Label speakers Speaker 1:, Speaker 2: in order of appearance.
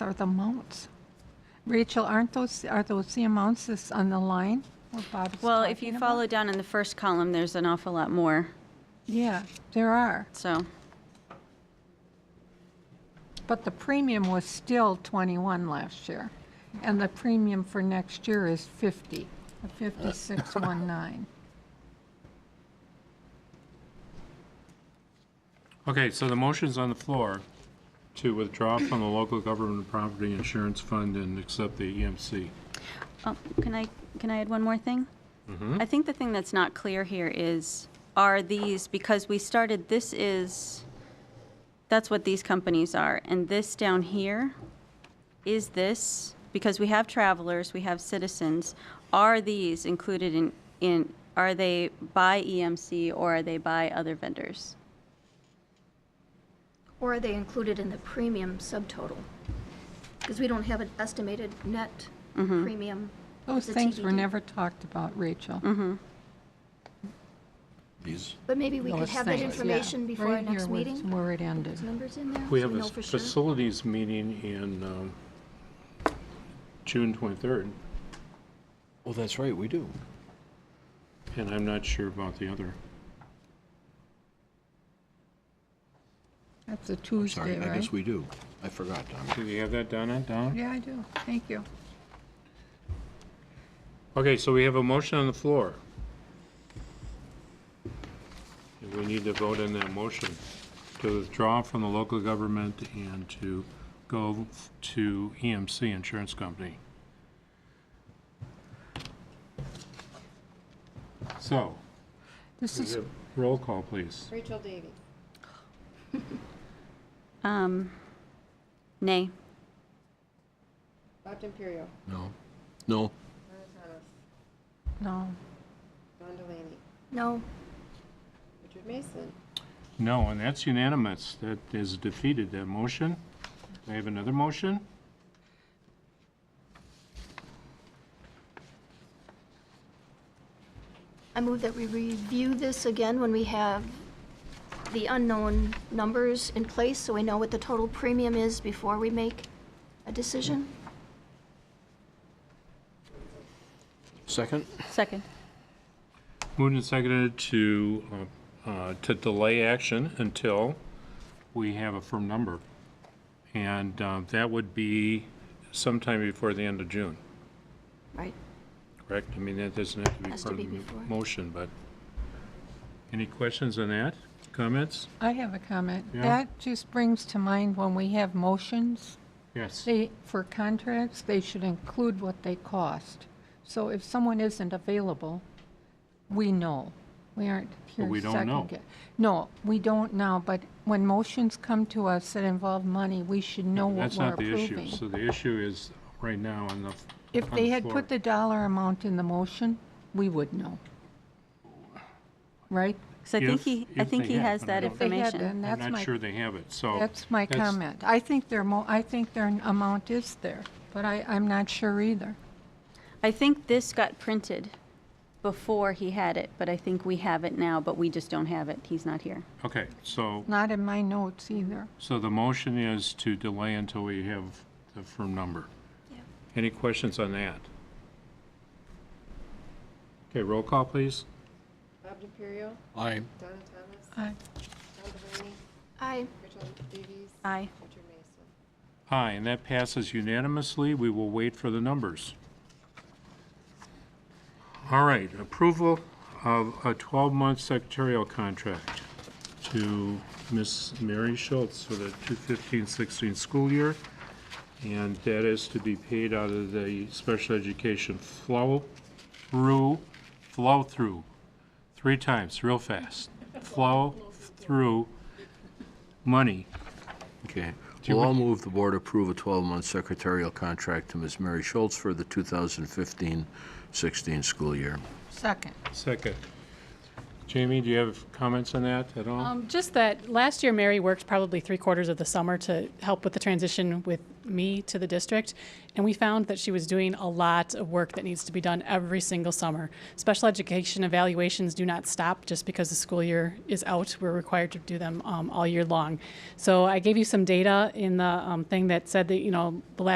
Speaker 1: are the amounts? Rachel, aren't those, are those the amounts that's on the line? what Bob is
Speaker 2: Well, if you
Speaker 1: talking about?
Speaker 2: follow down in the first column, there's an awful lot more,
Speaker 1: Yeah, there are.
Speaker 2: so,
Speaker 1: But the premium was still 21 last year, and the premium for next year is 50, 5619.
Speaker 3: Okay, so the motion's on the floor to withdraw from the local government property insurance fund and accept the E EMC.
Speaker 2: oh, can I, can I add one more thing? I think the thing that's not clear here is, are these, because we started, this is, that's what these companies are, and this down here, is this, because we have travelers, we have citizens, are these included in, in, are they by EMC or are they by other vendors?
Speaker 4: Or are they included in the premium subtotal? Because we don't have an estimated net premium.
Speaker 1: Those
Speaker 4: The
Speaker 1: things were
Speaker 4: TBD.
Speaker 1: never talked about, Rachel.
Speaker 2: Mm-hmm.
Speaker 5: These,
Speaker 4: But maybe we could
Speaker 1: Those
Speaker 4: have that
Speaker 1: things, yeah.
Speaker 4: information before our
Speaker 1: Right here
Speaker 4: next
Speaker 1: was
Speaker 4: meeting?
Speaker 1: Where it ended.
Speaker 4: Numbers in there?
Speaker 3: We
Speaker 4: so
Speaker 3: have a
Speaker 4: know for sure.
Speaker 3: facilities meeting in um, June 23rd,
Speaker 5: oh, that's right, we do.
Speaker 3: and I'm not sure about the other.
Speaker 1: That's a
Speaker 5: I'm
Speaker 1: Tuesday,
Speaker 5: sorry, I
Speaker 1: right?
Speaker 5: guess we do. I forgot, Donna.
Speaker 3: Do you have that, Donna, Donna?
Speaker 1: Yeah, I do. Thank you.
Speaker 3: Okay, so we have a motion on the floor. And We need to vote on that motion to withdraw from the local government and to go to EMC Insurance Company. So,
Speaker 1: This is,
Speaker 3: roll call, please.
Speaker 6: Rachel Davy.
Speaker 2: Um, nay.
Speaker 6: Bob D'Imperio.
Speaker 5: No. No,
Speaker 6: Donna Thomas.
Speaker 1: no,
Speaker 6: Don Delaney.
Speaker 4: No,
Speaker 6: Richard Mason.
Speaker 3: No, and that's unanimous. That is defeated, that motion. Do I have another motion?
Speaker 4: I move that we review this again when we have the unknown numbers in place, so we know what the total premium is before we make a decision.
Speaker 3: Mm-hmm.
Speaker 5: second?
Speaker 2: Second.
Speaker 3: Moved and seconded to, uh, uh, to delay action until we have a firm number. And uh, that would be sometime before the end of June,
Speaker 4: Right.
Speaker 3: correct? I mean, that doesn't have to be
Speaker 4: Has
Speaker 3: part
Speaker 4: to
Speaker 3: of the
Speaker 4: be before.
Speaker 3: motion, but. Any questions on that? Comments?
Speaker 1: I have a comment.
Speaker 3: Yeah.
Speaker 1: That just brings to mind when we have motions,
Speaker 3: Yes.
Speaker 1: they, for contracts, they should include what they cost. So if someone isn't available, we know. We aren't here
Speaker 3: we don't know.
Speaker 1: second guess. No, we don't now, but when motions come to us that involve money, we should know what
Speaker 3: That's
Speaker 1: we're
Speaker 3: not the issue.
Speaker 1: approving.
Speaker 3: So the issue is right now on the.
Speaker 1: If
Speaker 3: on
Speaker 1: they had
Speaker 3: floor.
Speaker 1: put the dollar amount in the motion, we would know. Right?
Speaker 2: So I think
Speaker 3: If-
Speaker 2: he, I
Speaker 3: if
Speaker 2: think
Speaker 3: they
Speaker 2: he
Speaker 3: have,
Speaker 2: has
Speaker 3: but I
Speaker 2: that
Speaker 3: don't-
Speaker 1: If they had,
Speaker 2: information.
Speaker 1: then
Speaker 3: I'm
Speaker 1: that's
Speaker 3: not
Speaker 1: my,
Speaker 3: sure they have it, so.
Speaker 1: that's my comment. I think their mo, I think their amount is there, but I, I'm not sure either.
Speaker 2: I think this got printed before he had it, but I think we have it now, but we just don't have it. He's not here.
Speaker 3: Okay, so,
Speaker 1: Not in my notes either.
Speaker 3: so the motion is to delay until we have the firm number. Any questions on that? Okay, roll call, please.
Speaker 6: Bob D'Imperio.
Speaker 5: Aye.
Speaker 6: Donna Thomas.
Speaker 1: Aye.
Speaker 6: Don Delaney.
Speaker 4: I,
Speaker 6: Rachel Davies.
Speaker 2: Aye.
Speaker 6: Richard Mason.
Speaker 3: Aye, and that passes unanimously. We will wait for the numbers. All right, approval of a 12-month secretarial contract to Miss Mary Schultz for the 2015-16 school year, and that is to be paid out of the special education flow-through, flow-through, three times, real fast, flow-through money.
Speaker 5: Okay.
Speaker 3: you
Speaker 5: Well, I'll
Speaker 3: want-
Speaker 5: move the board approve a 12-month secretarial contract to Ms. Mary Schultz for the 2015-16 school year.
Speaker 1: Second.
Speaker 3: Second. Jamie, do you have comments on that at all?
Speaker 7: Um, Just that, last year, Mary worked probably three quarters of the summer to help with the transition with me to the district, and we found that she was doing a lot of work that needs to be done every single summer. Special education evaluations do not stop just because the school year is out. We're required to do them um, all year long. So I gave you some data in the um, thing that said that, you know, the last